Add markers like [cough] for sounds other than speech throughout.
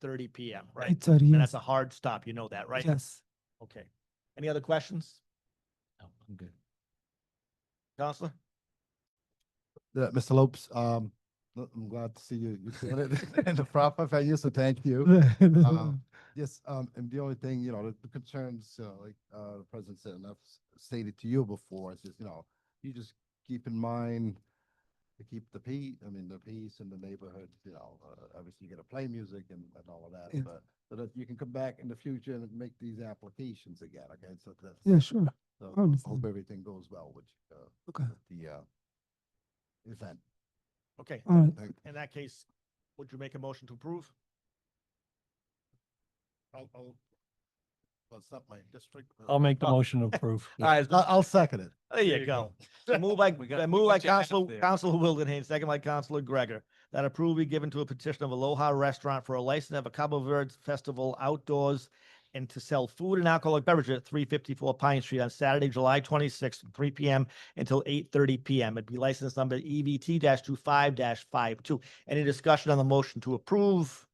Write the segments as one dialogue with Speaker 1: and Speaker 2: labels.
Speaker 1: thirty PM, right?
Speaker 2: Eight thirty,
Speaker 1: And
Speaker 2: yes.
Speaker 1: that's a hard stop, you know that, right?
Speaker 2: Yes. [laughs]
Speaker 1: Okay. Any other questions,
Speaker 3: No, I'm good.
Speaker 1: Counselor?
Speaker 4: the, Mr. Lopes, um, no, I'm glad to see you, you doing it [laughs] in the proper venue, so thank you. Yes, um, and the only thing, you know, the- the concerns, you know, like, uh, the President said, and I've s- stated to you before, is just, you know, you just keep in mind to keep the peace, I mean, the peace in the neighborhood, you know, uh, obviously you gotta play music and, and all of
Speaker 2: Yeah.
Speaker 4: that, but so that you can come back in the future and make these applications again, okay? So that's,
Speaker 2: Yeah, sure.
Speaker 4: so
Speaker 2: I understand.
Speaker 4: hope everything goes well with, uh,
Speaker 2: Okay.
Speaker 4: with the, uh, event.
Speaker 1: Okay,
Speaker 2: All right.
Speaker 4: Thank-
Speaker 1: in that case, would you make a motion to approve?
Speaker 4: I'll, I'll, well, it's not my district. but-
Speaker 3: I'll make the
Speaker 1: Uh,
Speaker 3: motion to approve.
Speaker 1: All right,
Speaker 4: I'll, I'll second it.
Speaker 1: there you go. [laughs] So Move by,
Speaker 3: We got-
Speaker 1: uh,
Speaker 3: we
Speaker 1: move
Speaker 3: got
Speaker 1: by
Speaker 3: your app
Speaker 1: Counselor,
Speaker 3: there.
Speaker 1: Counselor Wildenhain, second by Counselor Gregor. That approval be given to a petition of Aloha Restaurant for a license of a Cabo Verde Festival outdoors and to sell food and alcoholic beverages at three fifty-four Pine Street on Saturday, July twenty-sixth, from three P M until eight thirty P M. It'd be license number E V T 25 52 Any discussion on the motion to approve?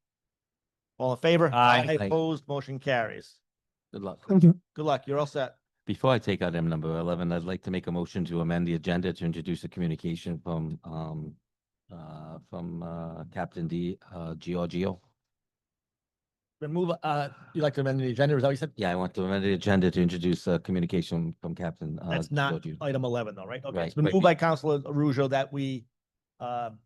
Speaker 1: All in favor?
Speaker 3: Aye. Aye.
Speaker 1: Opposed, motion carries.
Speaker 5: Good luck.
Speaker 2: Thank you.
Speaker 1: Good luck. You're all set.
Speaker 5: Before I take item number eleven, I'd like to make a motion to amend the agenda to introduce a communication from, um, uh, from, uh, Captain D, uh, Giorgio.
Speaker 1: Then move, uh, you'd like to amend the agenda, is that what you said?
Speaker 5: Yeah, I want to amend the agenda to introduce a communication from Captain. uh,
Speaker 1: That's not
Speaker 5: Giorgio.
Speaker 1: item eleven though, right? Okay, it's
Speaker 5: Right,
Speaker 1: been
Speaker 5: right.
Speaker 1: moved by Counselor Arujo that we, um,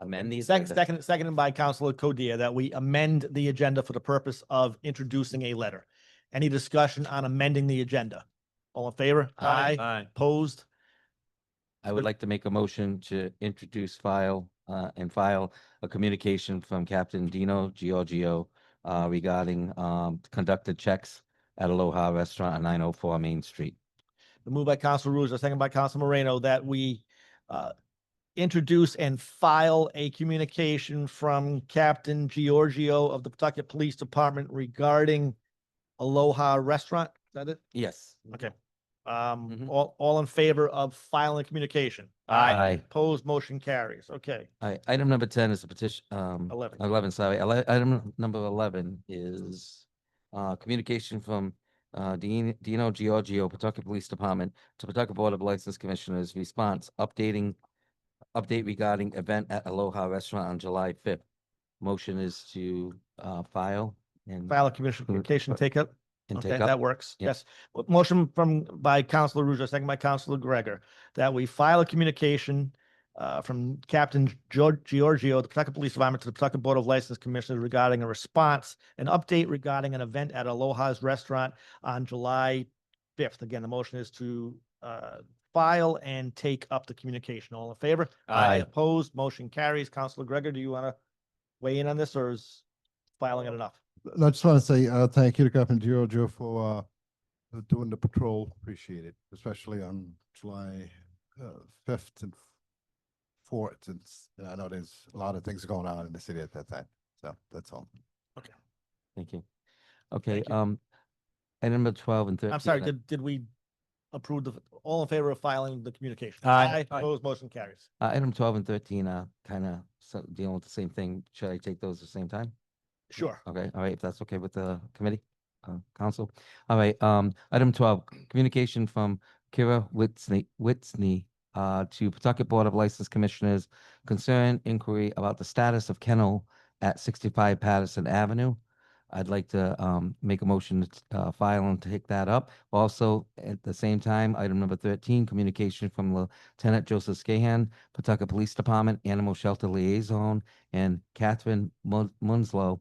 Speaker 5: Amend the.
Speaker 1: second,
Speaker 5: agenda.
Speaker 1: second, seconded by Counselor Codere that we amend the agenda for the purpose of introducing a letter. Any discussion on amending the agenda? All in favor?
Speaker 5: Aye.
Speaker 3: Aye.
Speaker 1: Opposed?
Speaker 5: I would
Speaker 1: Good.
Speaker 5: like to make a motion to introduce file, uh, and file a communication from Captain Dino Giorgio uh, regarding, um, conducted checks at Aloha Restaurant on nine oh four Main Street.
Speaker 1: The move by Counselor Arujo, second by Counselor Moreno that we, uh, introduce and file a communication from Captain Giorgio of the Pawtucket Police Department regarding Aloha Restaurant. Is that it?
Speaker 5: Yes.
Speaker 1: Okay. Um,
Speaker 5: Mhm.
Speaker 1: all, all in favor of filing communication?
Speaker 5: Aye.
Speaker 1: Opposed, motion carries. Okay,
Speaker 5: Alright, item number ten is a petition, um,
Speaker 1: eleven.
Speaker 5: eleven, sorry, ele- item number eleven is uh, communication from uh, Dean, Dino Giorgio, Pawtucket Police Department to Pawtucket Board of License Commissioners response, updating update regarding event at Aloha Restaurant on July fifth. Motion is to uh, file and
Speaker 1: File a commission
Speaker 5: Good.
Speaker 1: communication, take up.
Speaker 5: and
Speaker 1: Okay,
Speaker 5: take
Speaker 1: that
Speaker 5: up.
Speaker 1: works.
Speaker 5: Yeah.
Speaker 1: Yes. Mo- Motion from, by Counselor Ruzza, second by Counselor Gregor, that we file a communication uh, from Captain Gior- Giorgio, the Pawtucket Police Department to the Pawtucket Board of License Commissioners regarding a response, an update regarding an event at Aloha's Restaurant on July fifth. Again, the motion is to uh, file and take up the communication. All in favor?
Speaker 3: Aye.
Speaker 1: Opposed, motion carries. Counselor Gregor, do you want to weigh in on this or is filing it enough?
Speaker 4: I just want to say, uh, thank you to Captain Giorgio for, uh, for doing the patrol. Appreciate it, especially on July, uh, fifth and fourth, since I know there's a lot of things going on in the city at that time. So that's all.
Speaker 5: Thank you. Okay,
Speaker 1: Thank you.
Speaker 5: um, item number twelve and thirteen. uh,
Speaker 1: I'm sorry,
Speaker 5: I-
Speaker 1: did, did we approve the, all in favor of filing the communication?
Speaker 3: Aye. Aye.
Speaker 1: Opposed, motion carries.
Speaker 5: Uh, item twelve and thirteen are kind of dealing with the same thing. Should I take those at the same time?
Speaker 1: Sure.
Speaker 5: Okay, all right, if that's okay with the committee, uh, council. All right, um, item twelve, communication from Kira Whitney, Whitney, uh, to Pawtucket Board of License Commissioners concern inquiry about the status of kennel at sixty-five Patterson Avenue. I'd like to, um, make a motion to, uh, file and take that up. Also, at the same time, item number thirteen, communication from Lieutenant Joseph Scahan, Pawtucket Police Department Animal Shelter Liaison, and Catherine Mun- Munslow,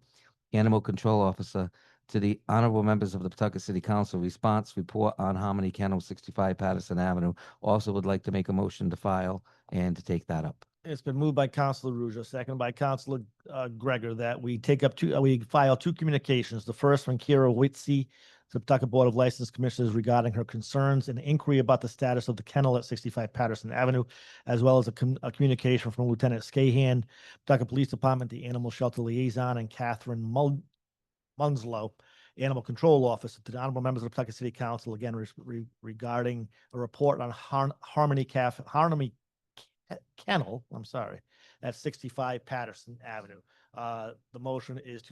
Speaker 5: Animal Control Officer, to the honorable members of the Pawtucket City Council response report on Harmony Kennel, sixty-five Patterson Avenue. Also would like to make a motion to file and to take that up.
Speaker 1: It's been moved by Counselor Ruzza, second by Counselor uh, Gregor, that we take up two, uh, we file two communications. The first from Kira Whitsey, to the Pawtucket Board of License Commissioners regarding her concerns and inquiry about the status of the kennel at sixty-five Patterson Avenue, as well as a com- a communication from Lieutenant Scahan, Pawtucket Police Department, the Animal Shelter Liaison, and Catherine Mul- Munslow, Animal Control Officer, to the honorable members of the Pawtucket City Council, again res- re- regarding a report on Har- Harmony Caf, Harmony Ke- Kennel, I'm sorry, at sixty-five Patterson Avenue. Uh, the motion is to